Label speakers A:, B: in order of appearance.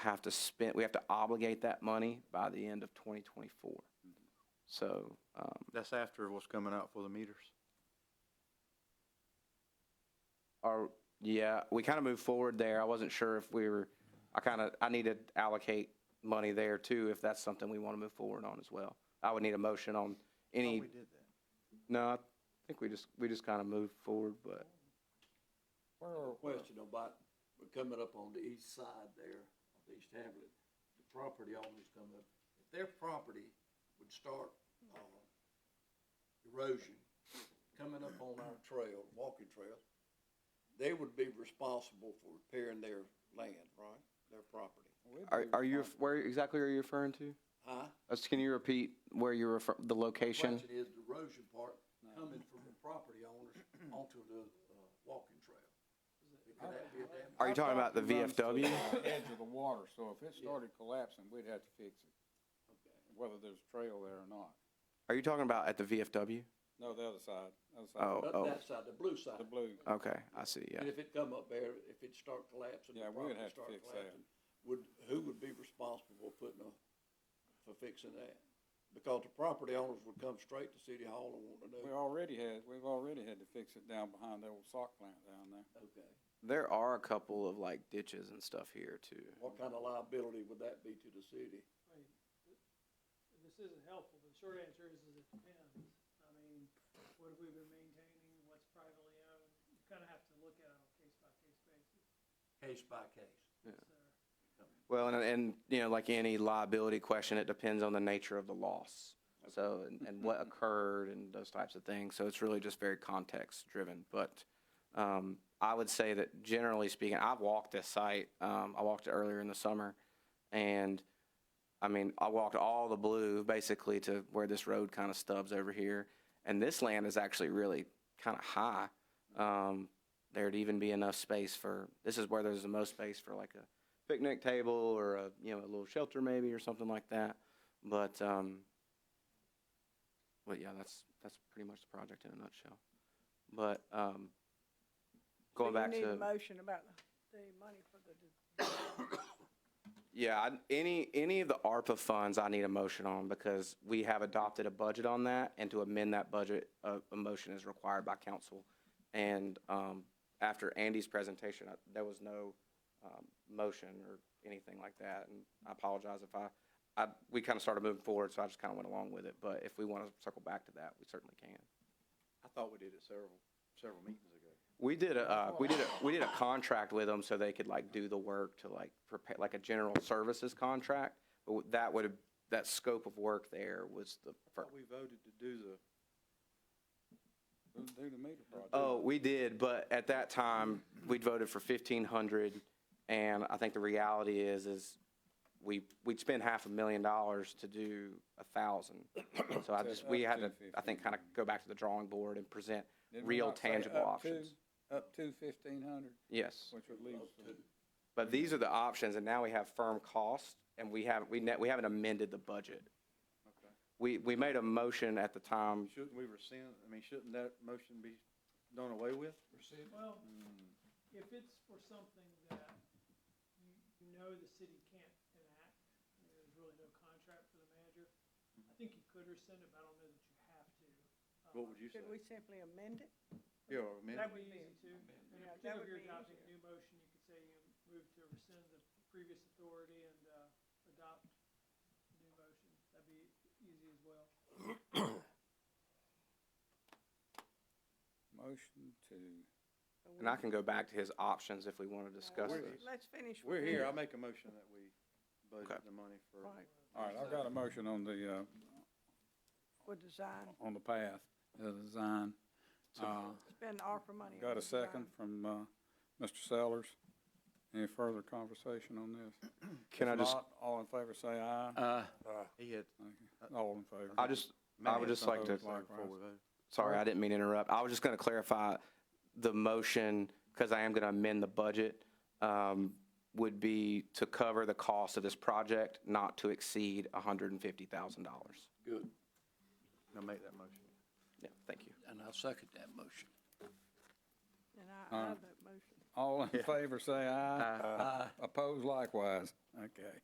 A: have to spend, we have to obligate that money by the end of 2024. So, um,
B: That's after what's coming out for the meters.
A: our, yeah, we kind of moved forward there. I wasn't sure if we were, I kind of, I need to allocate money there too, if that's something we want to move forward on as well. I would need a motion on any,
B: Oh, did that.
A: no, I think we just, we just kind of moved forward, but
C: question about, we're coming up on the east side there, of East Hamlet, the property owners come up. If their property would start, uh, erosion, coming up on our trail, walking trail, they would be responsible for repairing their land, right, their property.
A: are, are you, where exactly are you referring to?
C: Huh?
A: Uh, Can you repeat where you refer, the location?
C: Question is the erosion part coming from the property owners onto the, uh, walking trail. Could that be a damage?
A: Are you talking about the VFW?
D: Edge of the water, so if it started collapsing, we'd have to fix it, whether there's a trail there or not.
A: Are you talking about at the VFW?
D: No, the other side, other
A: Oh,
D: side,
C: Not
A: oh,
C: that side, the blue side.
D: the blue.
A: okay, I see, yeah.
C: And if it come up there, if it start collapsing, the
D: Yeah, we would
C: property
D: have to
C: start
D: fix that.
C: collapsing, would, who would be responsible for putting a, for fixing that? Because the property owners would come straight to city hall and want to
D: We
C: know,
D: already had, we've already had to fix it down behind the old sock plant down there.
C: okay,
A: There are a couple of like ditches and stuff here too.
C: what kind of liability would that be to the city?
E: I mean, th- This isn't helpful, the short answer is, is it depends. I mean, what have we been maintaining, what's privately owned, you kinda have to look at it on a case-by-case basis,
C: Case by case.
E: so.
A: Well, and, and, you know, like any liability question, it depends on the nature of the loss. So, and, and what occurred and those types of things. So it's really just very context driven. But, um, I would say that generally speaking, I've walked this site. Um, I walked it earlier in the summer and I mean, I walked all the blue basically to where this road kind of stubs over here. And this land is actually really kind of high. Um, there'd even be enough space for, this is where there's the most space for like a picnic table or a, you know, a little shelter maybe or something like that. But, um, but yeah, that's, that's pretty much the project in a nutshell. But, um,
F: So
A: going back to.
F: You need a motion about the money for the,
A: Yeah, I- any, any of the ARPA funds I need a motion on because we have adopted a budget on that and to amend that budget, a, a motion is required by council. And, um, after Andy's presentation, I- there was no, um, motion or anything like that. And I apologize if I, I, we kind of started moving forward, so I just kind of went along with it. But if we want to circle back to that, we certainly can.
B: I thought we did it several, several meetings ago.
A: We did a, uh, we did a, we did a contract with them so they could like do the work to like prepare, like a general services contract. But w- that would have, that scope of work there was the first.
B: Thought we voted to do the,
D: Do do the meter project.
A: Oh, we did, but at that time, we voted for fifteen hundred. And I think the reality is, is we, we'd spend half a million dollars to do a thousand. So I
D: So
A: just, we
D: up
A: had
D: to
A: to, I think, kind of go back to the drawing board and present
D: Didn't we
A: real
D: not say
A: tangible
D: up to-
A: options.
D: Up to fifteen hundred,
A: Yes.
D: which would leave
C: Up
D: some.
C: to-
A: But these are the options, and now we have firm cost, and we haven't, we ne- we haven't amended the budget.
B: Okay.
A: We, we made a motion at the time,
B: shouldn't we rescind, I mean, shouldn't that motion be done away with?
E: Well,
B: Mm.
E: if it's for something that you you know the city can't enact, I mean, there's really no contract for the manager, I think you could rescind it, but I don't know that you have to.
B: What
E: Um,
B: would you say?
F: should we simply amend it?
B: Yeah, or amend
E: That
B: it?
E: would be easy too. And
F: Yeah, that
E: particularly if
F: would
E: you're
F: be
E: adopting a new motion, you could say you move to rescind the previous authority and, uh, adopt a new motion. That'd be easy as well.
D: Motion to.
F: Or
A: and I
F: we-
A: can go back to his options if we want to discuss
F: Well,
A: this.
F: Let's finish.
B: We're
F: with
B: here, I
F: this.
B: make a motion that we budget
A: Okay.
B: the money for.
F: Right,
E: uh,
D: All right, I've got a motion on the, uh,
F: for design,
D: on the path, the design. Uh,
F: spend ARPA money. on
D: Got a
F: design.
D: second from, uh, Mr. Sellers. Any further conversation on this?
A: Can I
D: If
A: just,
D: not, All in favor, say aye.
B: Uh, he had.
D: All in favor.
A: Uh, I just, I would just like to,
D: Matt has something.
B: Before we vote.
A: sorry, I didn't mean to interrupt. I was just going to clarify the motion, because I am going to amend the budget, um, would be to cover the cost of this project not to exceed hundred and fifty thousand dollars.
C: Good,
B: Now make that motion.
A: Yeah, thank you.
C: and I second that motion.
F: And I, I
D: Alright.
F: have that motion.
D: All in favor, say aye.
A: Aye.
D: Opposed likewise. Okay.